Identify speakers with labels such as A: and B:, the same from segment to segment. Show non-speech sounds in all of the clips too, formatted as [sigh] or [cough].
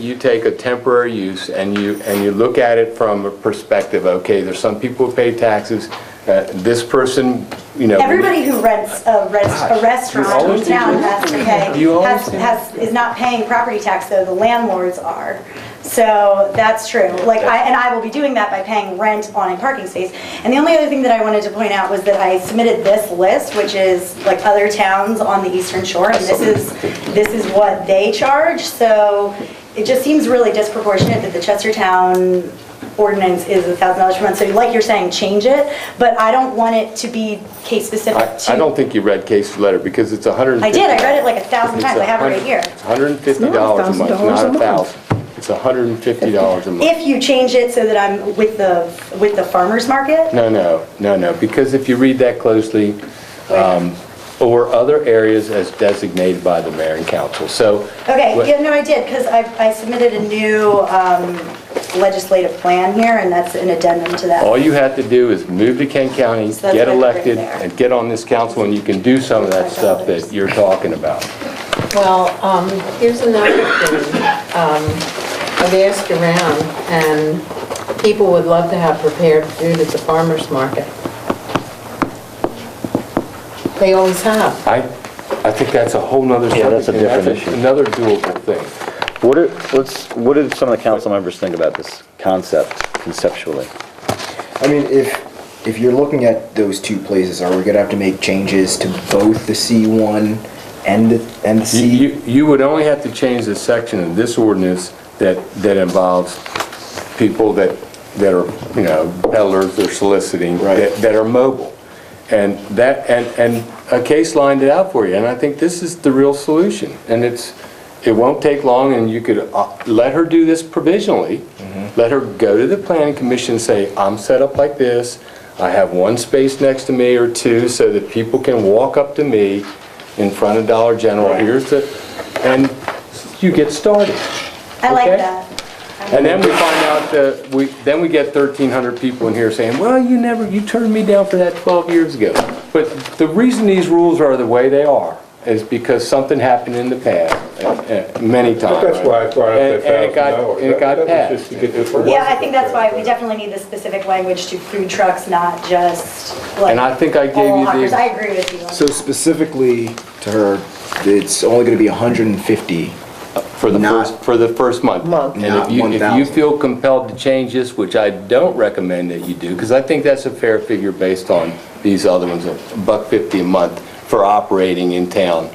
A: You take a temporary use and you, and you look at it from a perspective, okay, there's some people who pay taxes, uh, this person, you know.
B: Everybody who rents a rest- a
A: You
B: restaurant
A: always
B: in
A: do
B: town
A: that.
B: has to pay,
A: You always
B: has-
A: do that.
B: has- is not paying property tax, though the landlords are. So that's true. Like, I, and I will be doing that by paying rent on a parking space. And the only other thing that I wanted to point out was that I submitted this list, which is like other towns on the eastern shore, and this is, this is what they charge. So it just seems really disproportionate that the Chestertown ordinance is a thousand dollars per month. So like you're saying, change it, but I don't want it to be case
A: I
B: specific to.
A: I don't think you read Casey's letter because it's a hundred and
B: I
A: fifty.
B: did, I read it like a thousand times, I have it right here.
A: Hundred and fifty dollars a month, not
C: It's not
A: a
C: $1,000 a month.
A: thousand. It's a hundred and fifty dollars a month.
B: If you change it so that I'm with the, with the farmer's market,
A: No, no, no, no, because if you read that closely, um, or other areas as designated by the mayor and council, so.
B: okay,
A: what-
B: yeah, no, I did, because I, I submitted a new um, legislative plan here, and that's an addendum to that.
A: All you have to do is move to Kent County,
B: So that's
A: get
B: what I put right
A: elected,
B: there.
A: and get on this council, and you can do some of that stuff that you're talking about.
C: Well, um, here's another thing. Um, I've asked around, and people would love to have prepared food at the farmer's market. They always have.
A: I, I think that's a whole nother subject.
D: Yeah, that's a
A: and
D: different
A: a-
D: issue.
A: Another doable thing.
D: What do, what's, what do some of the council members think about this concept conceptually?
E: I mean, if, if you're looking at those two places, are we gonna have to make changes to both the C1 and, the- and the
A: You-
E: C?
A: You, you would only have to change the section of this ordinance that, that involves people that, that are, you know, peddlers or soliciting,
E: Right.
A: that that are mobile. And that, and, and a case lined it out for you, and I think this is the real solution. And it's, it won't take long, and you could uh, let her do this provisionally. Let her go to the planning commission, and say, I'm set up like this, I have one space next to me or two, so that people can walk up to me in front of Dollar General, here's the, and you get started.
B: I like
A: okay?
B: that.
A: And then we find out that, we, then we get 1,300 people in here saying, well, you never, you turned me down for that 12 years ago. But the reason these rules are the way they are is because something happened in the past, uh, uh, many times.
F: That's why I brought up
A: And- and
F: that
A: it got-
F: thousand dollars.
A: And it got passed.
B: Yeah, I think that's why we definitely need the specific language to food trucks, not just like.
A: And I think I gave
B: all
A: you the-
B: hawkers. I agree with you.
E: So specifically to her, it's only gonna be 150.
A: For the
E: Not-
A: first, for the first month.
C: Month.
A: And if
E: Not
A: you, if you
E: 1,000.
A: feel compelled to change this, which I don't recommend that you do, because I think that's a fair figure based on these other ones, a buck fifty a month for operating in town.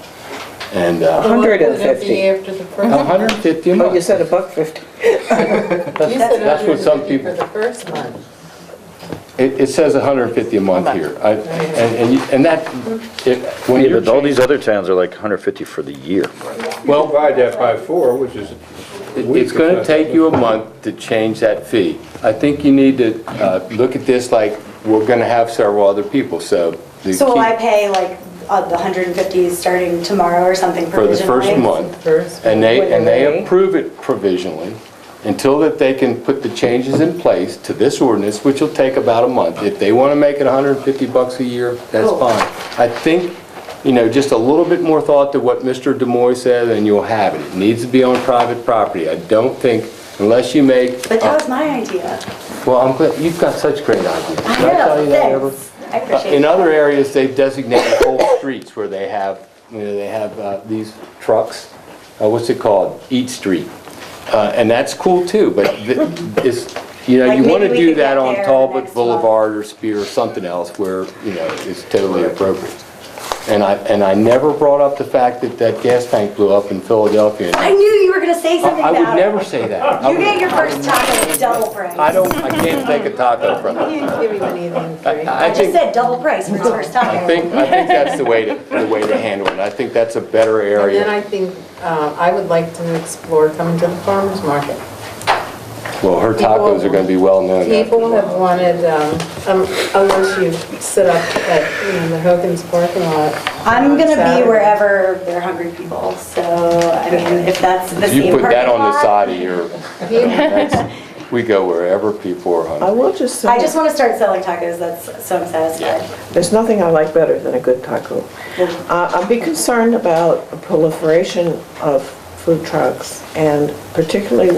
A: And, uh,
G: Hundred and
C: Wouldn't it be
G: fifty.
C: after the first?
A: a hundred and fifty a
G: Oh, you
A: month.
G: said a buck fifty.
C: You said
A: That's what some
C: 150
A: people-
C: For the first month.
A: It, it says a hundred and fifty a month here. I- And, and you- and that, it, when
D: Yeah,
A: you're
D: but all
A: changing,
D: these other towns are like 150 for the year.
A: well,
F: Divide that by four, which is.
A: It- It's going to take you a month to change that fee. I think you need to uh, look at this like, we're going to have several other people, so. the
B: So will
A: key-
B: I pay like uh, the 150 starting tomorrow or something
A: For the
B: provisionally?
A: first month.
C: First.
A: And they, and they
G: Wait.
A: approve it provisionally until that they can put the changes in place to this ordinance, which will take about a month. If they want to make it 150 bucks a year, that's
B: Cool.
A: fine. I think, you know, just a little bit more thought to what Mr. Demoy said, and you'll have it. It needs to be on private property. I don't think, unless you make
B: But that was my idea.
A: Well, I'm glad, you've got such great ideas. Can
B: I
A: tell you
B: know,
A: that, Amber?
B: thanks. I appreciate it.
A: Uh, In other areas, they've designated whole streets where they have, you know, they have uh, these trucks, uh, what's it called? Eat Street. Uh, And that's cool too, but th- it's, you know,
B: Like,
A: you want
B: maybe
A: to
B: we
A: do
B: could
A: that
B: get
A: on
B: there
A: Talbot
B: next month.
A: Boulevard or Spear or something else where, you know, it's totally appropriate. And I, and I never brought up the fact that that gas tank blew up in Philadelphia.
B: I knew you were gonna say something
A: I
B: about it.
A: would never say that. I
B: You
A: would-
B: get your first taco double price.
A: I don't, I can't take a taco from
C: You
A: it.
C: didn't give him anything free.
A: I
B: I just
A: think-
B: said double price for his first taco.
A: I think, I think that's the way to, the way to handle it. I think that's a better
C: And then
A: area.
C: I think, uh, I would like to explore coming to the farmer's market.
A: Well, her tacos are gonna be well-known.
C: People have wanted, um, um, unless you sit up at, you know, the Hogan's parking lot.
B: I'm
C: on
B: gonna
C: Saturday.
B: be wherever there are hungry people, so, I mean, if that's the
A: You
B: same
A: put that
B: parking
A: on the
B: lot-
A: side of your, that's- [laughs] we go wherever people are
G: I
A: hungry.
G: will just
B: I
G: say,
B: just wanna start selling tacos, that's, so I'm satisfied.
G: there's nothing I like better than a good taco. Uh, I'd be concerned about a proliferation of food trucks, and particularly